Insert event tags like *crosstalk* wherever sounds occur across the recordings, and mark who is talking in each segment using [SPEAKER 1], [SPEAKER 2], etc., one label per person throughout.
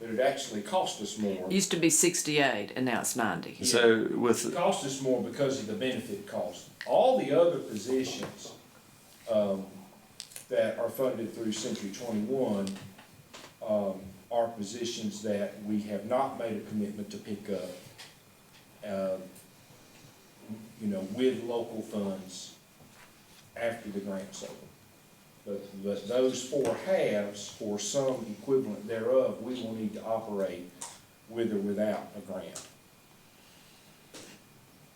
[SPEAKER 1] but it actually cost us more.
[SPEAKER 2] Used to be sixty-eight and now it's ninety.
[SPEAKER 3] So
[SPEAKER 1] It
[SPEAKER 3] with,
[SPEAKER 1] cost us more because of the benefit cost. All the other positions, um, that are funded through Century Twenty-One, um, are positions that we have not made a commitment to pick up, um, you know, with local funds after the grant's over. But, but those four halves, or some equivalent thereof, we will need to operate with or without a grant.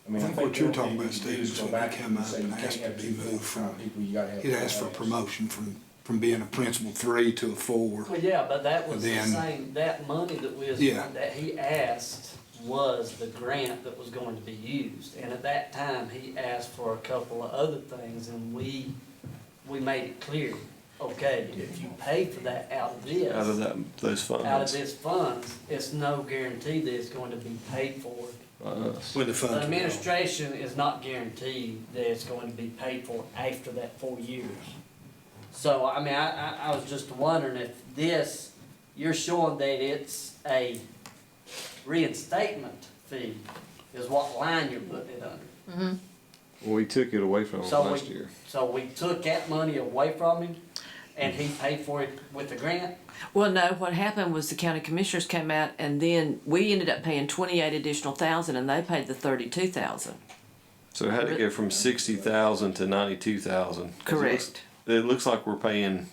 [SPEAKER 1] mean,
[SPEAKER 4] I think what you're talking about,
[SPEAKER 1] you can do
[SPEAKER 4] Steve,
[SPEAKER 1] is
[SPEAKER 4] is
[SPEAKER 1] go
[SPEAKER 4] when we
[SPEAKER 1] back
[SPEAKER 4] come
[SPEAKER 1] and
[SPEAKER 4] up
[SPEAKER 1] say
[SPEAKER 4] and
[SPEAKER 1] you can't
[SPEAKER 4] ask to
[SPEAKER 1] have
[SPEAKER 4] be
[SPEAKER 1] two
[SPEAKER 4] moved
[SPEAKER 1] full-time
[SPEAKER 4] from-
[SPEAKER 1] People, you gotta have.
[SPEAKER 4] It asked for
[SPEAKER 1] one else.
[SPEAKER 4] promotion from, from being a principal three to a four.
[SPEAKER 5] Well, yeah, but that was the
[SPEAKER 4] Then-
[SPEAKER 5] same, that money that was,
[SPEAKER 4] Yeah.
[SPEAKER 5] that he asked was the grant that was going to be used. And at that time, he asked for a couple of other things and we, we made it clear, okay, if you pay for that out of this,
[SPEAKER 3] out of that, those
[SPEAKER 5] out of
[SPEAKER 3] funds,
[SPEAKER 5] this funds, it's no guarantee that it's going to be paid for.
[SPEAKER 3] by us.
[SPEAKER 4] When the
[SPEAKER 5] The
[SPEAKER 4] funds. were gone.
[SPEAKER 5] administration is not guaranteed that it's going to be paid for after that four years. So, I mean, I, I, I was just wondering if this, you're showing that it's a reinstatement fee is what line you're putting it under.
[SPEAKER 3] Well, we took it away from them
[SPEAKER 5] So
[SPEAKER 3] last
[SPEAKER 5] we-
[SPEAKER 3] year.
[SPEAKER 5] So we took that money away from him and he paid for it with the grant?
[SPEAKER 2] Well, no, what happened was the county commissioners came out and then we ended up paying twenty-eight additional thousand and they paid the thirty-two thousand.
[SPEAKER 3] So it had to go from sixty thousand to ninety-two thousand.
[SPEAKER 2] Correct.
[SPEAKER 3] It looks like we're paying,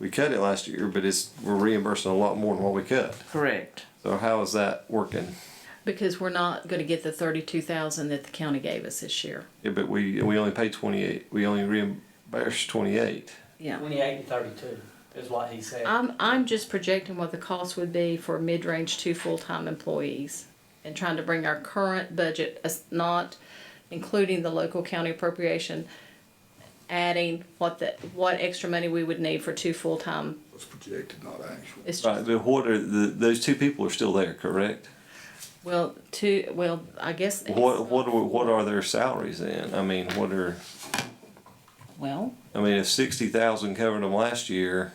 [SPEAKER 3] we cut it last year, but it's, we're reimbursing a lot more than what we cut.
[SPEAKER 2] Correct.
[SPEAKER 3] So how is that working?
[SPEAKER 6] Because we're not gonna get the thirty-two thousand that the county gave us this year,
[SPEAKER 3] Yeah, but we, we only paid twenty-eight, we only reimbursed twenty-eight.
[SPEAKER 6] yeah.
[SPEAKER 5] Twenty-eight and thirty-two is what he said.
[SPEAKER 6] I'm, I'm just projecting what the cost would be for mid-range two full-time employees and trying to bring our current budget, as- not including the local county appropriation, adding what the, what extra money we would need for two full-time,
[SPEAKER 4] Was projected, not actual.
[SPEAKER 6] it's
[SPEAKER 3] Right,
[SPEAKER 6] just,
[SPEAKER 3] but what are, the, those two people are still there, correct?
[SPEAKER 6] well, two, well, I guess.
[SPEAKER 3] What, what, are- what are their salaries then? I mean, what are,
[SPEAKER 6] Well,
[SPEAKER 3] I mean, if sixty thousand covered them last year,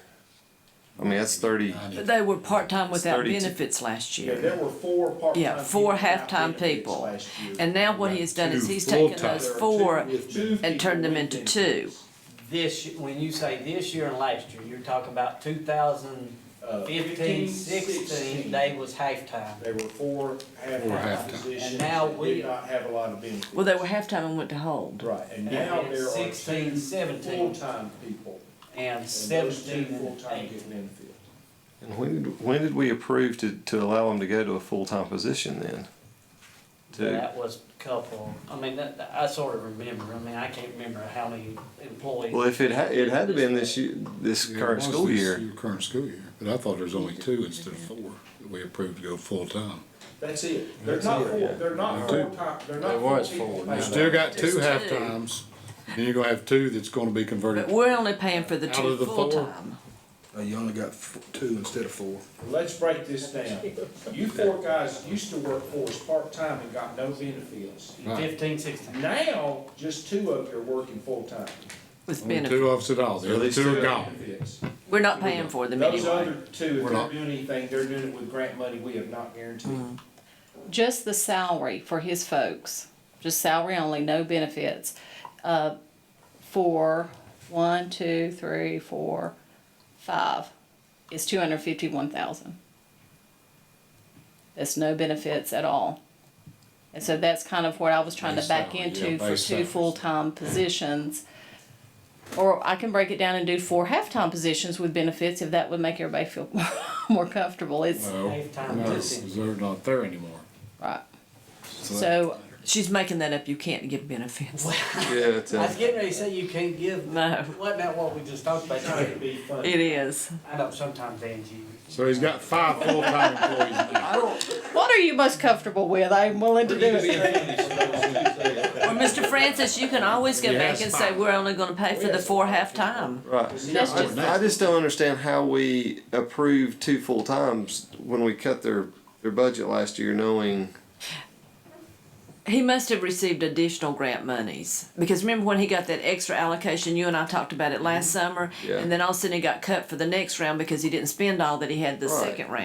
[SPEAKER 3] I mean, that's thirty.
[SPEAKER 2] But they were part-time without
[SPEAKER 3] 32.
[SPEAKER 2] benefits last
[SPEAKER 1] Yeah,
[SPEAKER 2] year.
[SPEAKER 1] there were four part-time.
[SPEAKER 2] Yeah, four
[SPEAKER 1] people without
[SPEAKER 2] half-time
[SPEAKER 1] benefits
[SPEAKER 2] people.
[SPEAKER 1] last year.
[SPEAKER 2] And now what he has done is
[SPEAKER 4] Two
[SPEAKER 2] he's taken
[SPEAKER 4] full-time.
[SPEAKER 2] those
[SPEAKER 1] There are two
[SPEAKER 2] four
[SPEAKER 1] with benefits.
[SPEAKER 2] and turned them
[SPEAKER 1] Two
[SPEAKER 2] into
[SPEAKER 1] people
[SPEAKER 2] two.
[SPEAKER 1] with
[SPEAKER 5] This, y- when you say this year and last year, you're talking about two thousand
[SPEAKER 1] benefits. Uh,
[SPEAKER 5] 15, 16, they was halftime.
[SPEAKER 1] There were four half-time
[SPEAKER 4] half-time.
[SPEAKER 1] positions.
[SPEAKER 5] And now
[SPEAKER 1] that
[SPEAKER 5] we-
[SPEAKER 1] Did not have a lot of benefits.
[SPEAKER 2] Well, they were halftime and went to hold.
[SPEAKER 1] Right, and now
[SPEAKER 5] And
[SPEAKER 1] there are
[SPEAKER 5] 16,
[SPEAKER 1] two
[SPEAKER 5] 17.
[SPEAKER 1] full-time people.
[SPEAKER 5] And
[SPEAKER 1] And those two
[SPEAKER 5] 17 and
[SPEAKER 1] full-time
[SPEAKER 5] 8.
[SPEAKER 1] get benefits.
[SPEAKER 3] And when, did- when did we approve to, to allow them to go to a full-time position then? To,
[SPEAKER 5] That was a couple, I mean, that, that- I sort of remember, I mean, I can't remember how many
[SPEAKER 3] well,
[SPEAKER 5] employees.
[SPEAKER 3] if it had, it had to been this year, this current school year.
[SPEAKER 7] Current school year, but I thought there was only two instead of four that we approved to go full-time.
[SPEAKER 1] That's it. They're not four, they're not
[SPEAKER 7] Two.
[SPEAKER 1] full-time, they're not four people.
[SPEAKER 7] You
[SPEAKER 1] based
[SPEAKER 7] still
[SPEAKER 1] on-
[SPEAKER 7] got
[SPEAKER 2] Just
[SPEAKER 7] two
[SPEAKER 2] two.
[SPEAKER 7] half-times, then you're gonna have two that's gonna be
[SPEAKER 2] But
[SPEAKER 7] converted.
[SPEAKER 2] we're only paying for the
[SPEAKER 7] Out
[SPEAKER 2] two
[SPEAKER 7] of the four.
[SPEAKER 2] full-time.
[SPEAKER 4] Uh, You only got f- two instead of four.
[SPEAKER 1] Let's break this down. You four guys used to work for us part-time and got no benefits.
[SPEAKER 5] 15, 16.
[SPEAKER 1] Now, just two of you are working full-time.
[SPEAKER 2] with
[SPEAKER 7] Only
[SPEAKER 2] benefits.
[SPEAKER 7] Two of us at all, the other
[SPEAKER 3] these
[SPEAKER 7] two
[SPEAKER 3] two-
[SPEAKER 7] are gone.
[SPEAKER 1] Benefits.
[SPEAKER 2] We're not paying for them
[SPEAKER 1] Those other
[SPEAKER 2] anyway.
[SPEAKER 1] two, if
[SPEAKER 7] We're
[SPEAKER 1] they're
[SPEAKER 7] not.
[SPEAKER 1] doing anything, they're doing it with grant money we have not guaranteed.
[SPEAKER 6] just the salary for his folks, just salary only, no benefits, uh, for one, two, three, four, five, is two hundred fifty-one thousand. That's no benefits at all. And so that's kind of what I was trying to
[SPEAKER 7] Base
[SPEAKER 6] back
[SPEAKER 7] salary,
[SPEAKER 6] into
[SPEAKER 7] yeah,
[SPEAKER 6] for
[SPEAKER 7] base
[SPEAKER 6] two
[SPEAKER 7] salaries.
[SPEAKER 6] full-time positions. Or I can break it down and do four half-time positions with benefits if that would make everybody feel *laughs* more comfortable, it's,
[SPEAKER 7] Well,
[SPEAKER 5] Half-time
[SPEAKER 7] no,
[SPEAKER 5] position.
[SPEAKER 7] they're not there anymore.
[SPEAKER 6] right,
[SPEAKER 7] So that-
[SPEAKER 6] so
[SPEAKER 2] She's making that up. You can't give benefits.
[SPEAKER 3] Yeah, it's,
[SPEAKER 5] I was
[SPEAKER 3] uh,
[SPEAKER 5] getting ready to say you can't
[SPEAKER 2] *laughs*
[SPEAKER 5] give,
[SPEAKER 2] No,
[SPEAKER 5] wasn't that what we just talked about?
[SPEAKER 1] Trying to be funny.
[SPEAKER 2] it is.
[SPEAKER 5] I know sometimes Angie.
[SPEAKER 7] So he's got five full-time employees now.
[SPEAKER 6] What are you most comfortable with? I'm willing to do it.
[SPEAKER 2] Well, Mr. Francis, you can always go back and say, we're only gonna pay for the four half-time.
[SPEAKER 3] right.
[SPEAKER 6] That's just,
[SPEAKER 3] I just don't understand how we approved two full-times when we cut their, their budget last year knowing.
[SPEAKER 2] He must have received additional grant monies, because remember when he got that extra allocation, you and I talked about it last summer?
[SPEAKER 3] Mm-hmm. Yeah.
[SPEAKER 2] And then all of a sudden he got cut for the next round because he didn't spend all that he had the
[SPEAKER 3] Right.
[SPEAKER 2] second round.